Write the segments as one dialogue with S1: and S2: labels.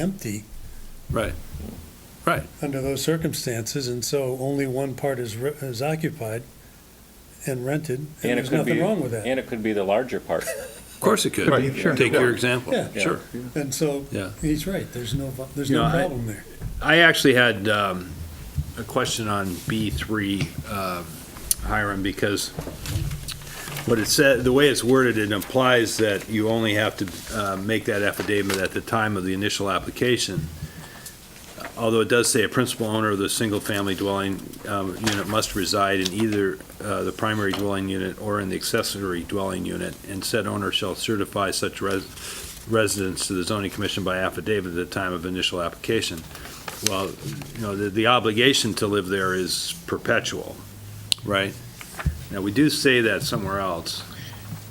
S1: empty
S2: Right, right.
S1: under those circumstances, and so only one part is, re- is occupied and rented, and
S3: And it
S1: there's
S3: could
S1: nothing
S3: be-
S1: wrong with that.
S3: And it could be the larger part.
S2: Of course it could.
S4: Right, sure.
S2: Take your example.
S1: Yeah.
S3: Yeah.
S2: Sure.
S1: And so,
S2: Yeah.
S1: he's right, there's no, vo- there's
S4: You
S1: no
S4: know, I-
S1: problem there.
S4: I actually had um, a question on B3, um, Hiram, because what it said, the way it's worded, it implies that you only have to uh, make that affidavit at the time of the initial application. Although it does say a principal owner of the single-family dwelling um, unit must reside in either uh, the primary dwelling unit or in the accessory dwelling unit, and said owner shall certify such res- residence to the zoning commission by affidavit at the time of initial application. Well, you know, the, the obligation to live there is perpetual, right? Now, we do say that somewhere else,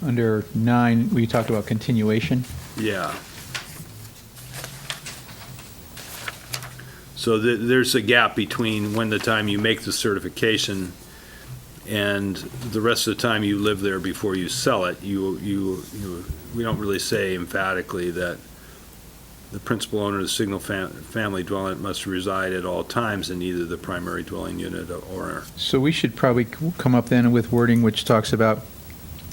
S5: Under nine, we talked about continuation.
S4: yeah. So the, there's a gap between when the time you make the certification and the rest of the time you live there before you sell it. You, you, you, we don't really say emphatically that the principal owner of the single fam- family dwelling must reside at all times in either the primary dwelling unit or
S5: So we should probably c- come up then with wording which talks about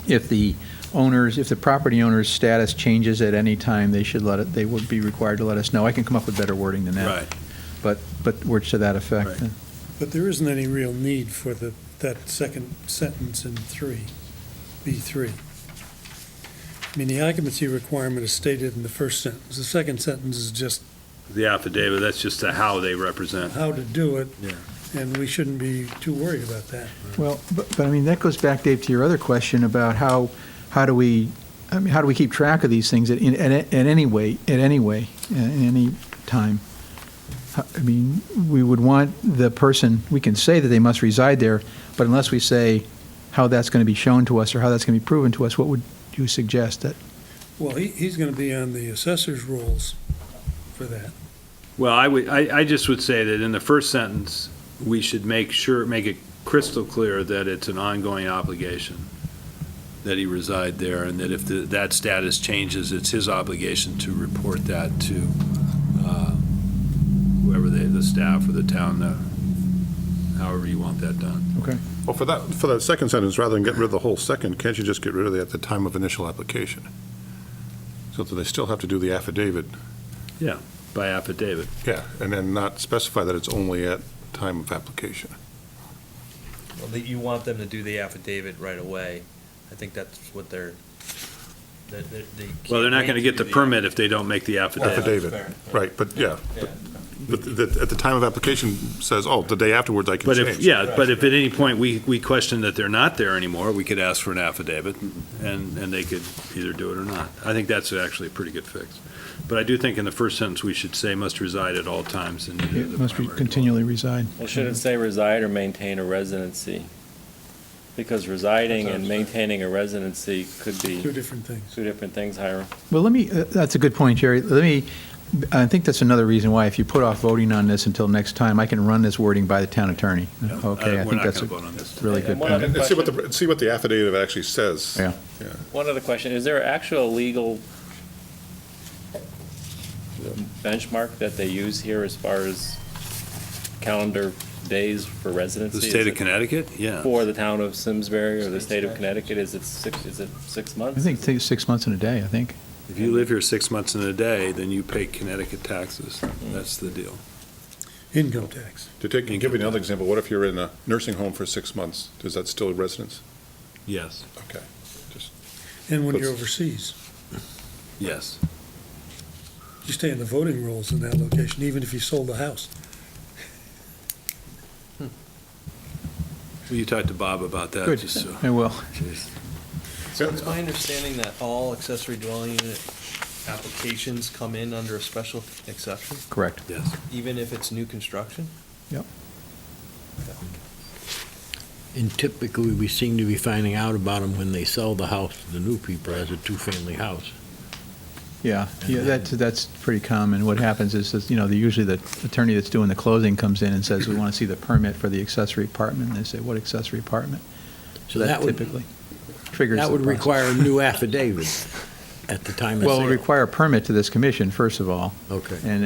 S5: if the owners, if the property owner's status changes at any time, they should let it, they would be required to let us know. I can come up with better wording than that.
S4: Right.
S5: But, but words to that effect.
S4: Right.
S1: But there isn't any real need for the, that second sentence in three, B three. I mean, the occupancy requirement is stated in the first sentence. The second sentence is just
S4: the affidavit. That's just the how they represent.
S1: how to do it,
S4: Yeah.
S1: and we shouldn't be too worried about that.
S5: Well, but, but I mean, that goes back, Dave, to your other question about how, how do we, I mean, how do we keep track of these things at, in- at, at any way, at any way, at any time? How- I mean, we would want the person, we can say that they must reside there, but unless we say how that's going to be shown to us or how that's going to be proven to us, what would you suggest that?
S1: Well, he, he's gonna be on the assessor's rolls for that.
S4: Well, I would, I, I just would say that in the first sentence, we should make sure, make it crystal clear that it's an ongoing obligation, that he reside there, and that if the- that status changes, it's his obligation to report that to uh, whoever they, the staff or the town, uh, however you want that done.
S5: Okay.
S6: Well, for that, for that second sentence, rather than get rid of the whole second, can't you just get rid of the at the time of initial application? So that they still have to do the affidavit,
S4: By affidavit.
S6: yeah, and then not specify that it's only at time of application.
S7: Well, that you want them to do the affidavit right away. I think that's what they're, that, that they.
S4: Well, they're not
S7: can't
S4: going to get
S7: wait
S4: the
S7: do
S4: permit if they don't make the affidavit.
S6: Affidavit, right, but yeah,
S7: Yeah.
S6: but the- at the time of application says, oh, the day afterwards I can
S4: But if,
S6: change.
S4: yeah, but if at any point we, we question that they're not there anymore, we could ask for an affidavit, and, and they could either do it or not. I think that's actually a pretty good fix. But I do think in the first sentence, we should say must reside at all times in either the
S5: It must be
S4: primary dwelling.
S5: continually reside.
S3: Well, should it say reside or maintain a residency? Because residing and maintaining a residency could
S1: Two
S3: be
S1: different things.
S3: two different things, Hiram.
S5: Well, let me, uh, that's a good point, Jerry. Let me, I think that's another reason why if you put off voting on this until next time, I can run this wording by the town attorney.
S4: Yeah, I-
S5: Okay, I
S4: We're
S5: think
S4: not going
S5: that's
S4: to
S5: a
S4: vote on this.
S5: really
S3: And
S5: good
S3: one
S5: point.
S3: other
S6: And see what
S3: question-
S6: the, see what the affidavit actually says.
S5: Yeah.
S3: One other question, is there actual legal benchmark that they use here as far as calendar days for residency?
S4: The
S3: Is
S4: state of
S3: it
S4: Connecticut, yeah.
S3: For the town of Simsbury or the state of Connecticut, is it six, is it six months?
S5: I think it takes six months and a day, I think.
S4: If you live here six months and a day, then you pay Connecticut taxes. That's the deal.
S1: Income tax.
S6: To take, give you another example, what if you're in a nursing home for six months? Is that still residence?
S4: Yes,
S6: Okay.
S1: And when you're
S6: That's-
S1: overseas,
S4: yes.
S1: you stay in the voting rolls in that location, even if you sold the house.
S4: Well, You talked to Bob about that,
S5: Good,
S4: just so.
S5: I will.
S7: So it's my understanding that all accessory dwelling unit applications come in under a special exception,
S5: Correct.
S4: Yes.
S7: even if it's new construction?
S8: And typically, we seem to be finding out about them when they sell the house to the new people as a two-family house.
S5: Yeah, yeah, that's, that's pretty common. What happens is, is, you know, the- usually the attorney that's doing the closing comes in and says, we want to see the permit for the accessory apartment. And they say, what accessory apartment?
S8: So that would,
S5: Typically triggers
S8: that
S5: the
S8: would
S5: process.
S8: require a new affidavit at the time of sale.
S5: Well, it would require a permit to this commission, first of all.
S8: Okay.
S5: And